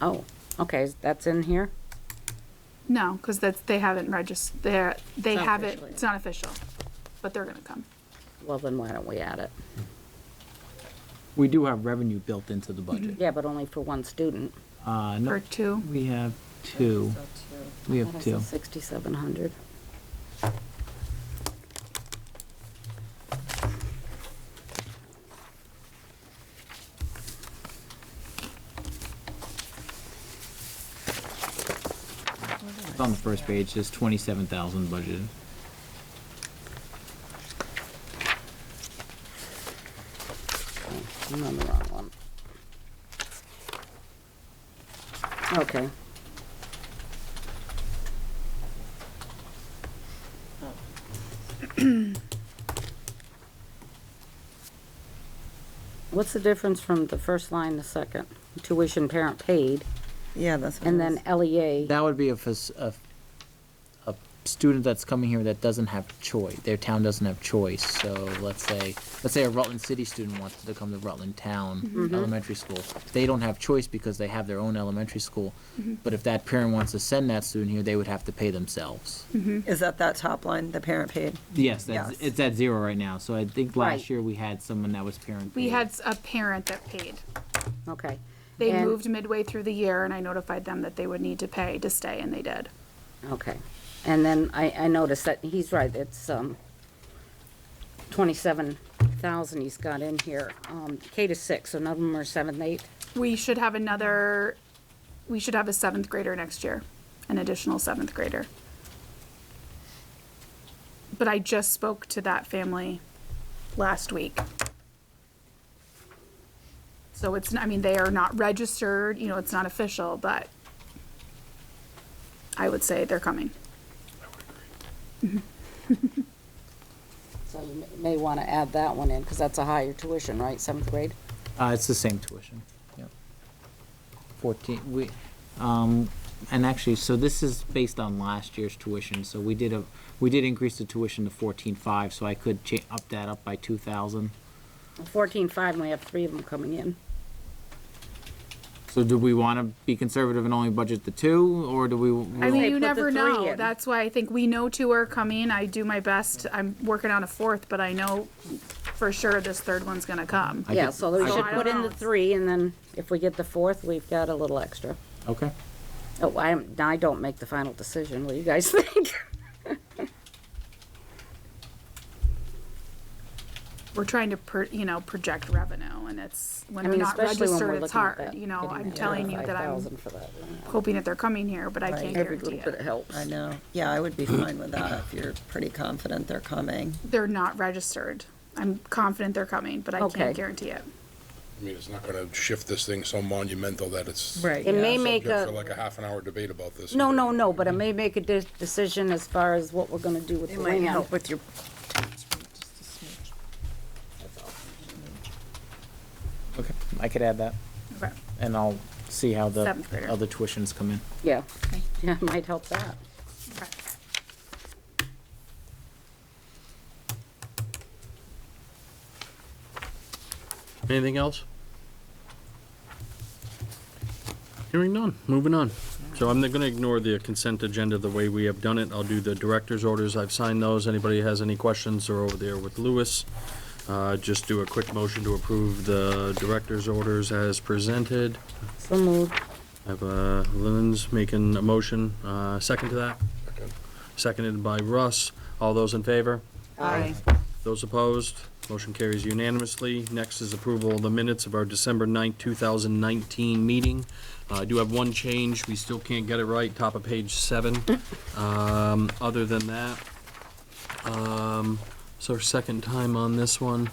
Oh, okay, that's in here? No, because that's, they haven't registered, they're, they It's not have it, official yet. it's not official, but they're gonna come. Well, then why don't we add it? We do have revenue built into the budget. Yeah, but only for one student. Uh, Or no, two, we have two. We have two. Sixty-seven hundred. It's on the first page, there's twenty-seven thousand budgeted. I'm on the wrong one. Okay. Oh. What's the difference from the first line to second? Tuition parent paid, Yeah, that's. what and it then E is. LEA. That would be if a, s- a- a student that's coming here that doesn't have choice, their town doesn't have choice, so let's say, let's say a Rutland City student wants to come to Rutland Town Elementary School. They don't have choice because they have their own elementary school, but if that parent wants to send that student here, they would have to pay themselves. Is that that top line, the parent paid? Yes, that's, Yes. it's at zero right now, so I think Right. last year we had someone that was parent. we paid. had s- a parent that paid. Okay. They And- moved midway through the year and I notified them that they would need to pay to stay and they did. Okay, and then I, I noticed that, he's right, it's, um, twenty-seven thousand he's got in here, um, K to six, so none of them are seventh, eighth, We should have another, we should have a seventh grader next year, an additional seventh grader. But I just spoke to that family last week. So it's, I mean, they are not registered, you know, it's not official, but I would say they're coming. so you may wanna add that one in, cause that's a higher tuition, right, seventh grade? Uh, it's the same tuition, yep. Fourteen, we, um, and actually, so this is based on last year's tuition, so we did a, we did increase the tuition to fourteen-five, so I could cha- up that up by two thousand. Fourteen-five, and we have three of them coming in. So do we wanna be conservative and only budget the two, or do we? I mean, They you put the three never know. in. That's why I think we know two are coming. I do my best. I'm working on a fourth, but I know for sure this third one's gonna come. I Yeah, guess- so we I should guess- put in the three, and then if we get the fourth, we've got a little extra. Okay, Oh, I, am- I don't make the final decision, what do you guys think? We're trying to, per- you know, project revenue and it's, when I they're mean, not especially when we're registered, it's looking at hard. that. You know, getting I'm that telling you that I'm 35,000 for that. hoping that they're coming here, but I Right. can't Every guarantee little bit it. helps. I know. Yeah, I would be fine with that if you're pretty confident they're coming. They're not registered. I'm confident they're coming, but I Okay. can't guarantee it. I mean, it's not gonna shift this thing so monumental that it's. It may yeah. make a. Subject for like a half an hour debate about this. No, no, no, but I may make a de- decision as far as what we're gonna do with It the might land. help with your. okay, I could add that, Okay. and I'll see how the Seventh grader. Uh, other tuitions come in. Yeah, yeah, it might help that. Okay. Anything else? Hearing none, moving on. So I'm gonna ignore the consent agenda the way we have done it. I'll do the director's orders. I've signed those. Anybody has any questions, they're over there with Lewis. Uh, just do a quick motion to approve the director's orders as presented. So moved. I have, uh, Lynn's making a motion, uh, second to that, Second. seconded by Russ. All those in favor? Those opposed, motion carries unanimously. Next is approval of the minutes of our December 9th, 2019 meeting. Uh, I do have one change, we still can't get it right, top of page seven. Um, Other than that, um, it's our second time on this one.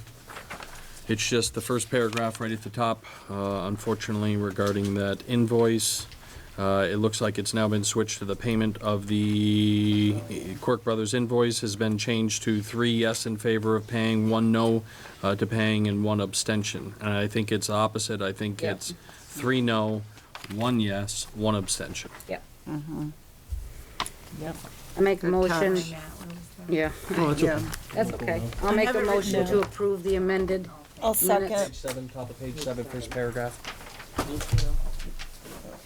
It's just the first paragraph right at the top, uh, unfortunately regarding that invoice. Uh, It looks like it's now been switched to the payment of the Quirk Brothers invoice has been changed to three yes in favor of paying, one no uh, to paying, and one abstention. And I think it's opposite. I think Yeah. it's three no, one yes, one abstention. Yeah, Mm-hmm. Yep. I make a motion, catch. yeah, Yeah. that's okay. I'll make have it a written motion to down. approve the amended, I'll Minutes. second. seven, top of page seven, first paragraph.